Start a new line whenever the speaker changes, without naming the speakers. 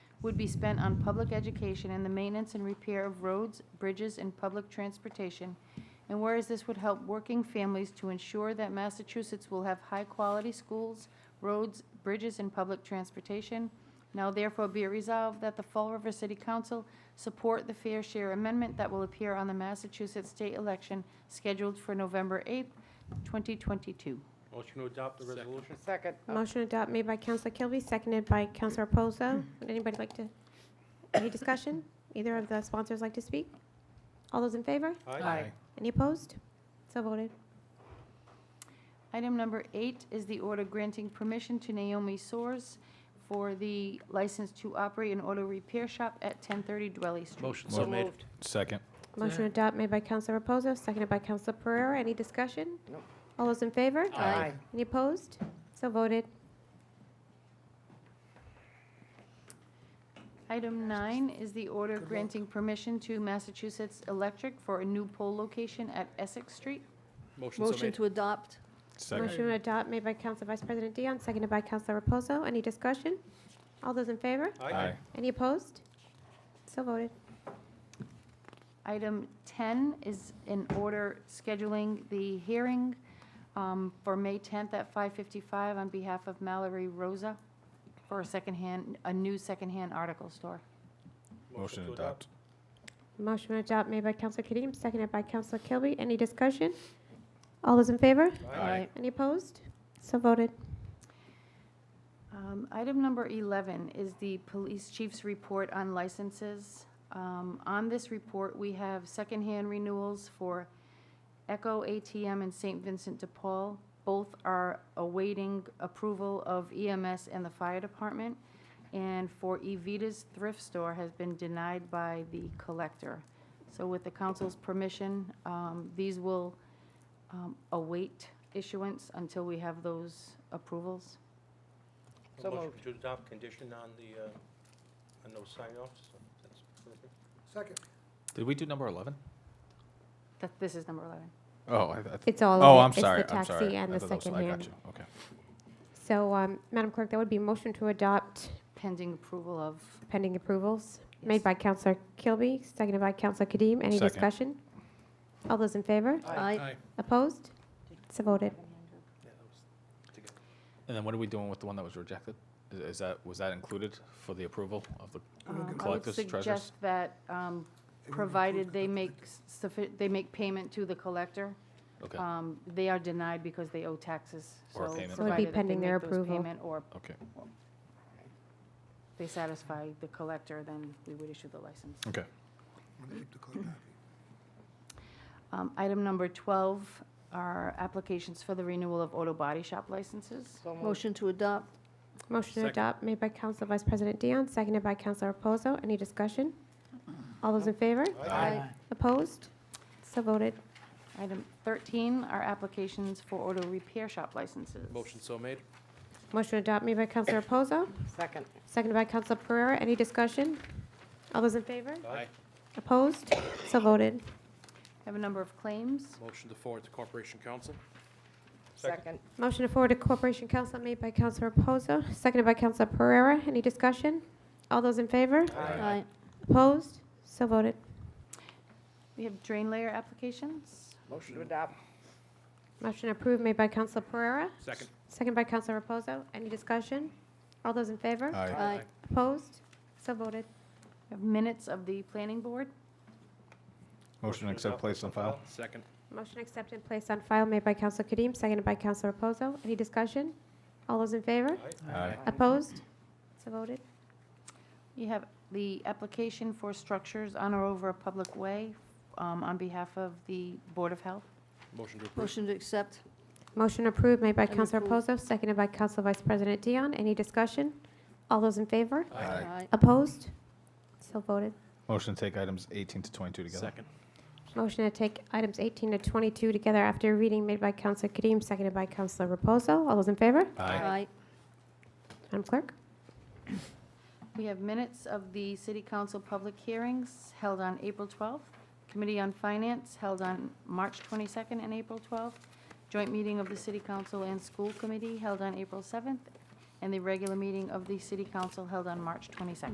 would be spent on public education and the maintenance and repair of roads, bridges, and public transportation. And whereas this would help working families to ensure that Massachusetts will have high-quality schools, roads, bridges, and public transportation, now therefore be it resolved that the Fall River City Council support the fair share amendment that will appear on the Massachusetts state election scheduled for November 8th, 2022.
Motion to adopt the resolution?
Second.
Motion adopted made by Counselor Kilby, seconded by Counselor Reposo. Would anybody like to, any discussion? Either of the sponsors like to speak? All those in favor?
Aye.
Any opposed? So voted.
Item number eight is the order granting permission to Naomi Soers for the license to operate an auto repair shop at 1030 Dwelly Street.
Motion so made.
Second.
Motion adopted made by Counselor Reposo, seconded by Counselor Pereira. Any discussion?
Nope.
All those in favor?
Aye.
Any opposed? So voted.
Item nine is the order granting permission to Massachusetts Electric for a new pole location at Essex Street.
Motion so
Motion
made.
to adopt.
Second.
Motion adopted made by Counselor Vice President Dion, seconded by Counselor Reposo. Any discussion? All those in favor?
Aye.
Any opposed? So voted.
Item 10 is an order scheduling the hearing um, for May 10th at 5:55 on behalf of Mallory Rosa for a secondhand, a new secondhand article store.
Motion to adopt.
Motion to adopt made by Counselor Kadeem, seconded by Counselor Kilby. Any discussion? All those in favor?
Aye.
Any opposed? So voted.
Um, Item number 11 is the police chief's report on licenses. Um, On this report, we have secondhand renewals for Echo ATM and St. Vincent de Paul. Both are awaiting approval of EMS and the fire department. And for Evita's Thrift Store has been denied by the collector. So with the council's permission, um, these will um, await issuance until we have those approvals.
So
Motion
moved.
to adopt condition on the, uh, on those sign-offs. so that's perfect.
Second.
Did we do number 11?
That, this is number 11.
Oh, I, I th-
It's all of it.
oh, I'm sorry.
It's the
I'm sorry.
taxi and
I
the
thought that was- I got
secondhand.
you. Okay.
So, um, Madam Clerk, that would be motion to adopt
pending approval of,
pending approvals
Yes.
made by Counselor Kilby, seconded by Counselor Kadeem. Any
Second.
discussion? All those in favor?
Aye.
Opposed? So voted.
Yeah, that was together.
And then what are we doing with the one that was rejected? Is, is that was that included for the approval of the?
um, I would
Collectors, treasurers?
suggest that, um, provided they make suffi, they make payment to the collector,
Okay.
Uh,
um, they are denied because they owe taxes.
Or a
So
payment.
So it would be
provided that they
pending their
make those
approval.
payment Or
okay.
they satisfy the collector, then we would issue the license.
Okay.
Wanna keep the clerk happy.
Um, Item number 12 are applications for the renewal of auto body shop licenses.
So moved.
Motion to adopt.
Motion to
Second.
adopt made by Counselor Vice President Dion, seconded by Counselor Reposo. Any discussion? All those in favor?
Aye.
Opposed? So voted.
Item 13 are applications for auto repair shop licenses.
Motion so made.
Motion to adopt made by Counselor Reposo,
Second.
seconded by Counselor Pereira. Any discussion? All those in favor?
Aye.
Opposed? So voted.
Have a number of claims.
Motion to forward to Corporation Council.
Second.
Motion to forward to Corporation Council made by Counselor Reposo, seconded by Counselor Pereira. Any discussion? All those in favor?
Aye.
Opposed? So voted.
We have drain layer applications.
Motion to adopt.
Motion approved made by Counselor Pereira,
Second.
seconded by Counselor Reposo. Any discussion? All those in favor?
Aye.
Aye.
Opposed? So voted.
We have Minutes of the planning board.
Motion to accept, place on file.
Second.
Motion accepted and placed on file made by Counselor Kadeem, seconded by Counselor Reposo. Any discussion? All those in favor?
Aye.
Opposed? So voted.
You have the application for structures on or over a public way um, on behalf of the Board of Health.
Motion to approve.
Motion to accept.
Motion approved made by
And
Counselor
approved.
Reposo, seconded by Counselor Vice President Dion. Any discussion? All those in favor?
Aye.
Opposed? So voted.
Motion to take items 18 to 22 together.
Second.
Motion to take items 18 to 22 together after reading made by Counselor Kadeem, seconded by Counselor Reposo. All those in favor?
Aye.
Madam Clerk?
We have minutes of the city council public hearings held on April 12th, Committee on Finance held on March 22nd and April 12th, joint meeting of the city council and school committee held on April 7th, and the regular meeting of the city council held on March 22nd.